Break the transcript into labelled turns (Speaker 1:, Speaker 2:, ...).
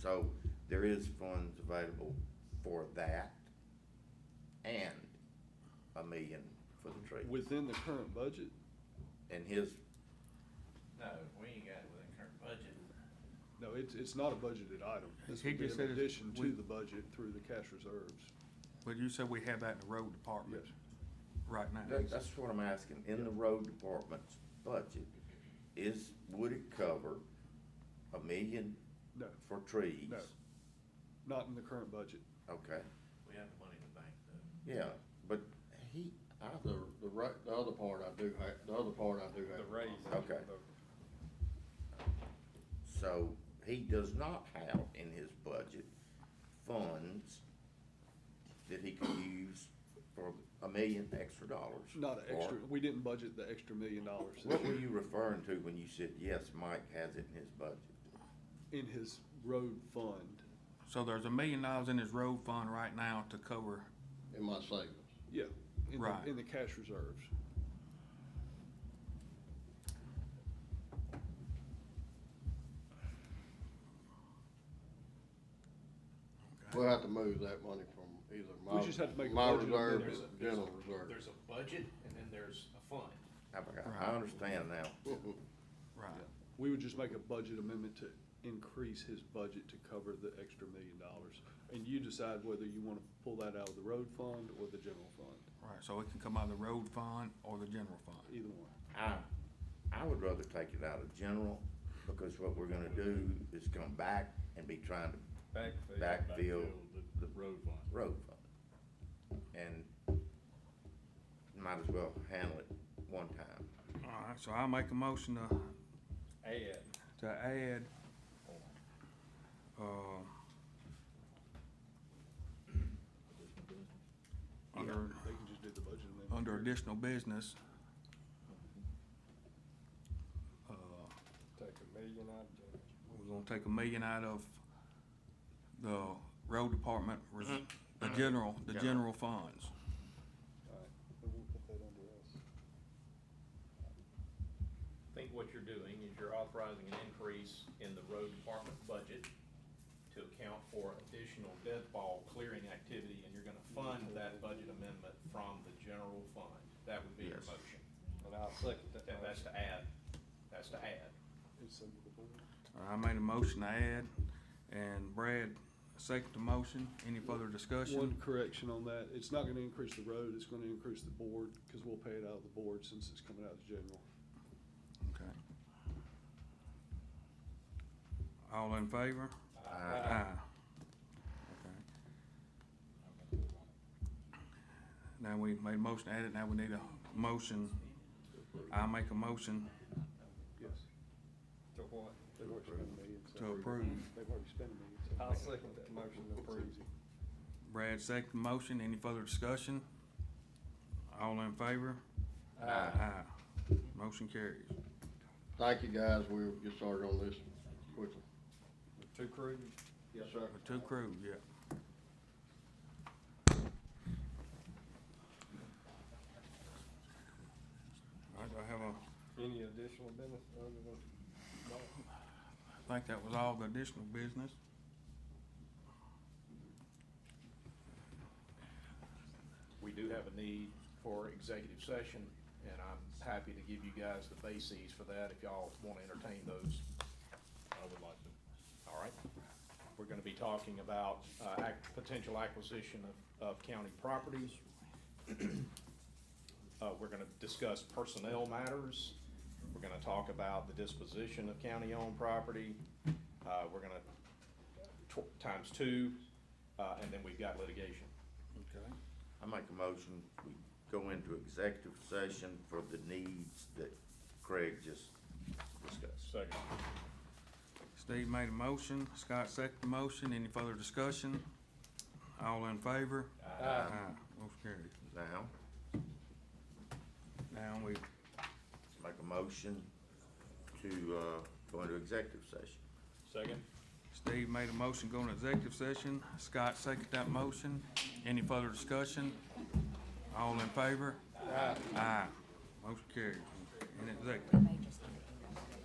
Speaker 1: So there is funds available for that and a million for the tree.
Speaker 2: Within the current budget?
Speaker 1: And his,
Speaker 3: No, we ain't got it within current budget.
Speaker 2: No, it's, it's not a budgeted item. This
Speaker 4: He
Speaker 2: would be
Speaker 4: just
Speaker 2: in
Speaker 4: said it's-
Speaker 2: addition
Speaker 4: we-
Speaker 2: to the budget through the cash reserves.
Speaker 4: But you said we have that in the road department
Speaker 2: Yes.
Speaker 4: right now.
Speaker 1: that, that's what I'm asking, in the road department's budget, is, would it cover a million
Speaker 2: No,
Speaker 1: for trees?
Speaker 2: No. not in the current budget.
Speaker 1: Okay,
Speaker 3: We have the money in the bank though.
Speaker 1: yeah, but he,
Speaker 5: I, the, the right, the other part I do have, the other part I do have.
Speaker 6: The raise.
Speaker 1: Okay. So he does not have in his budget funds that he could use for a million extra dollars.
Speaker 2: Not an
Speaker 1: Or-
Speaker 2: extra, we didn't budget the extra million dollars
Speaker 1: What were you referring to when you said, yes, Mike has it in his budget?
Speaker 2: in his road fund.
Speaker 4: So there's a million dollars in his road fund right now to cover,
Speaker 5: In my savings.
Speaker 2: Yeah, in
Speaker 4: Right.
Speaker 2: the, in the cash reserves.
Speaker 5: We'll have to move that money from either my,
Speaker 2: We just have to make a
Speaker 5: my
Speaker 2: budget amendment.
Speaker 5: reserve
Speaker 3: There's
Speaker 5: to
Speaker 3: a-
Speaker 5: general reserve.
Speaker 3: There's a budget and then there's a fund.
Speaker 1: I forgot. I understand now.
Speaker 4: right,
Speaker 2: We would just make a budget amendment to increase his budget to cover the extra million dollars. And you decide whether you wanna pull that out of the road fund or the general fund,
Speaker 4: right, so it can come out of the road fund or the general fund.
Speaker 2: either one.
Speaker 1: I, I would rather take it out of general, because what we're gonna do is come back and be trying to
Speaker 6: Backfill.
Speaker 1: Backfill.
Speaker 6: The, the road fund.
Speaker 1: road fund. And might as well handle it one time.
Speaker 4: All right, so I'll make a motion to,
Speaker 3: uh,
Speaker 6: Add.
Speaker 4: to add, uh,
Speaker 2: Yeah,
Speaker 4: under,
Speaker 2: They can just do the budget amendment.
Speaker 4: under additional business, uh,
Speaker 6: Take a million out of general.
Speaker 4: we're gonna take a million out of the road department, res- the general, the general funds.
Speaker 2: Alright, and we'll put that under us.
Speaker 3: I think what you're doing is you're authorizing an increase in the road department budget to account for additional deadfall clearing activity, and you're gonna fund that budget amendment from the general fund. That would be your
Speaker 1: Yes.
Speaker 3: motion.
Speaker 6: And I'll second that.
Speaker 3: And that's to add, that's to add.
Speaker 2: It's under the board.
Speaker 4: I made a motion to add, and Brad seconded the motion. Any further discussion?
Speaker 2: One correction on that, it's not gonna increase the road, it's gonna increase the board, cause we'll pay it out of the board since it's coming out of the general.
Speaker 4: Okay. All in favor?
Speaker 1: Aye.
Speaker 4: Okay. Now we made a motion to add it, now we need a motion. I make a motion
Speaker 2: Yes.
Speaker 6: To what?
Speaker 2: They've already spent a million. so-
Speaker 4: to approve.
Speaker 2: They've already spent a million. so-
Speaker 6: I'll second that motion to approve.
Speaker 2: It's easy.
Speaker 4: Brad seconded the motion. Any further discussion? All in favor?
Speaker 1: Aye.
Speaker 4: Aye. Motion carries.
Speaker 5: Thank you, guys. We'll get started on this quickly.
Speaker 6: With Two crews.
Speaker 5: Yes, sir.
Speaker 4: With Two crews, yeah. All right, do I have a,
Speaker 6: Any additional business other than?
Speaker 4: I think that was all the additional business.
Speaker 3: We do have a need for executive session, and I'm happy to give you guys the bases for that if y'all want to entertain those. I would like to. All right. We're going to be talking about uh, ac- potential acquisition of, of county properties. Uh, We're going to discuss personnel matters. We're going to talk about the disposition of county-owned property. Uh, We're going to, times two, uh, and then we've got litigation.
Speaker 4: Okay.
Speaker 1: I make a motion, we go into executive session for the needs that Craig just discussed.
Speaker 3: Second.
Speaker 4: Steve made a motion, Scott seconded the motion. Any further discussion? All in favor? Aye. Motion carries.
Speaker 1: Now,
Speaker 4: Now we,
Speaker 1: make a motion to, uh, go into executive session.
Speaker 3: Second.
Speaker 4: Steve made a motion going to executive session. Scott seconded that motion. Any further discussion? All in favor? Aye. Motion carries. In executive.